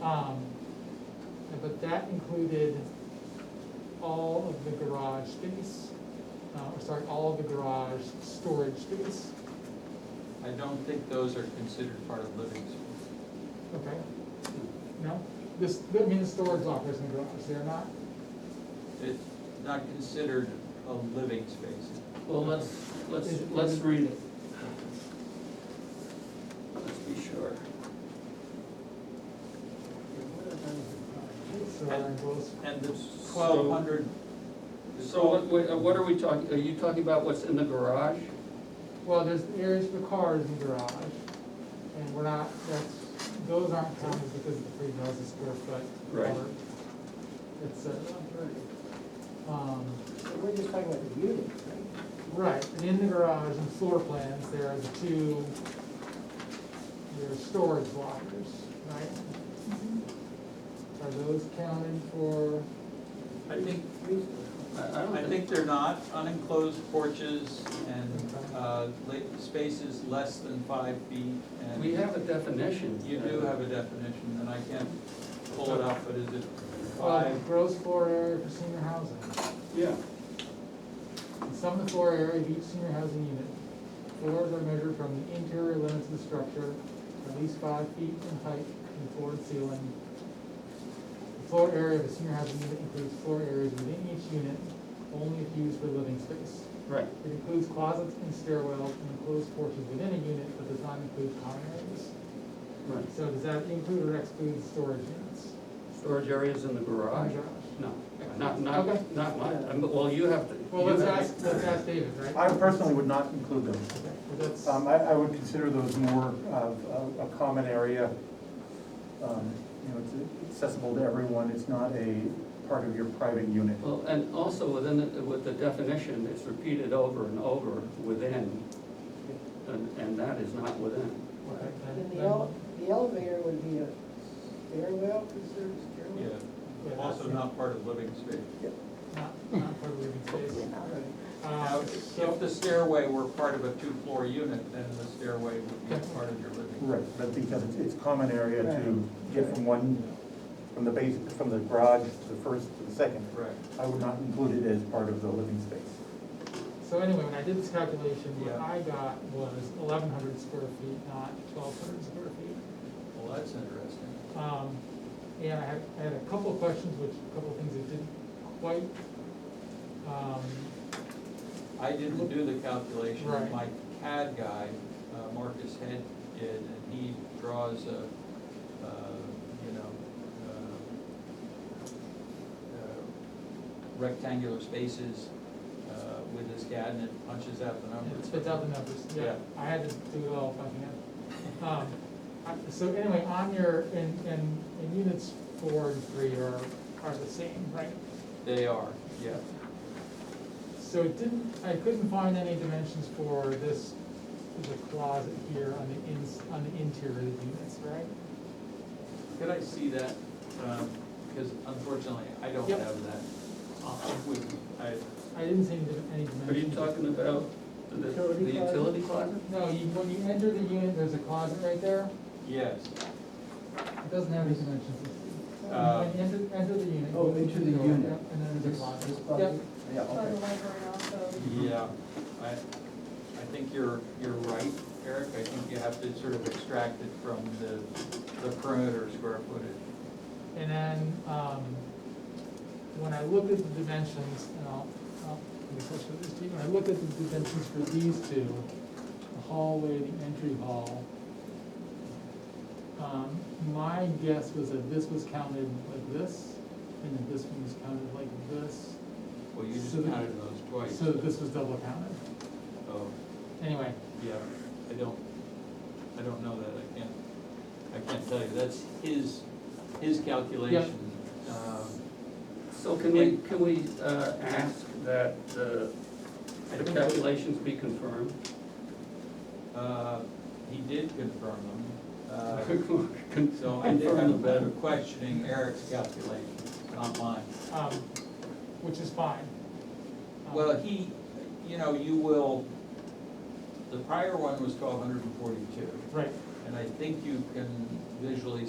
Um, But that included all of the garage space, uh, or sorry, all of the garage storage space, I don't think those are considered part of living space. okay? No, this, I mean, the storage lockers in the garage, they're not, It's not considered a living space. Well, let's, let's, let's read it. Let's be sure. so they're enclosed. And the So- twelve hundred. So what, what- uh, what are we talking, are you talking about what's in the garage? Well, there's areas for cars in the garage, and we're not, that's, those aren't counted because of the three thousand square foot. Right. cover, et cetera. Um, So We're just talking about the units, right? right, and in the garage and floor plans, there are the two, there are storage lockers, right? Are those counted for, I think, Three- I, I I don't think, think they're not, unenclosed porches and, uh, la- spaces less than five feet. and we have a definition. You do have a definition, and I can't pull it up, but is it uh, five? gross floor area for senior housing? Yeah. The sum of the floor area of each senior housing unit. Floors are measured from the interior limits of the structure, at least five feet in height from floor to ceiling. The floor area of a senior housing unit includes floor areas within each unit, only if used for living space. Right. It includes closets and stairwells and enclosed portions within a unit, but does not include common areas. Right. So does that include or exclude storage units? Storage areas in the garage? Garage. No, not, not, not mine, I'm- well, you have to. Well, you let's have- ask, let's ask David, right? I personally would not include them. Okay, well, that's- Um, I, I would consider those more of a, a common area. Um, You know, it's accessible to everyone, it's not a part of your private unit. Well, and also within, the- with the definition, it's repeated over and over, within, and, and that is not within. okay, then- And the then- ele, the elevator would be a stairwell, considered Yeah, stairwell? also not part of living space. Not, not part of the living space. All right. Now, Uh, if so, the stairway were part of a two-floor unit, then the stairway would be part of your living. Right, but because it's, it's common area to Right. get from one, from the base, from the garage to the first to the second. Correct. I would not include it as part of the living space. so anyway, when I did this calculation, what Yeah. I got was eleven hundred square feet, not twelve hundred square feet. Well, that's interesting. Um, and I had, I had a couple of questions, which, a couple of things that didn't quite, um, I didn't do the calculation, Right. my CAD guy, uh, Marcus Head did, and he draws a, uh, you know, uh, uh, rectangular spaces uh, with his CAD and it punches out the it numbers. spits Um, out the numbers, yeah, Yeah. I had to do it all by hand. Um, I- so anyway, on your, and, and, and units four and three are, are the same, right? They are, yeah. So it didn't, I couldn't find any dimensions for this, the closet here on the ins, on the interior of the units, right? Could I see that? Because unfortunately, I don't Yep. have that uh, with me. I- I didn't see any, dim- any dimensions. Are you talking about the, the Utility closet? utility closet? No, you, when you enter the unit, there's a closet right there, Yes, it doesn't have any dimensions. Uh, When you enter, enter the unit. Oh, enter the Yep, unit. And then there's a closet. This closet? Yep. Yeah, Saw the okay. library also. yeah, I, I think you're, you're right, Eric. I think you have to sort of extract it from the, the perimeter square footage. And then, um, when I looked at the dimensions, and I'll, I'll, let me push with this to you. when I looked at the dimensions for these two, the hallway, the entry hall, um, my guess was that this was counted like this, and that this one was counted like this, Well, you just So the- counted those twice. so that this was double counted. Oh, Anyway, yeah, I don't, I don't know that. I can't, I can't tell you. That's his, his calculation. Um, So can we, can we, uh, ask that, uh, I the think- calculations be confirmed? Uh, He did confirm them. uh, Con- So I did have a confirm better them. questioning Eric's calculation, not mine. um, which is fine. Um, Well, he, you know, you will, the prior one was twelve hundred and forty-two, Right. and I think you can visually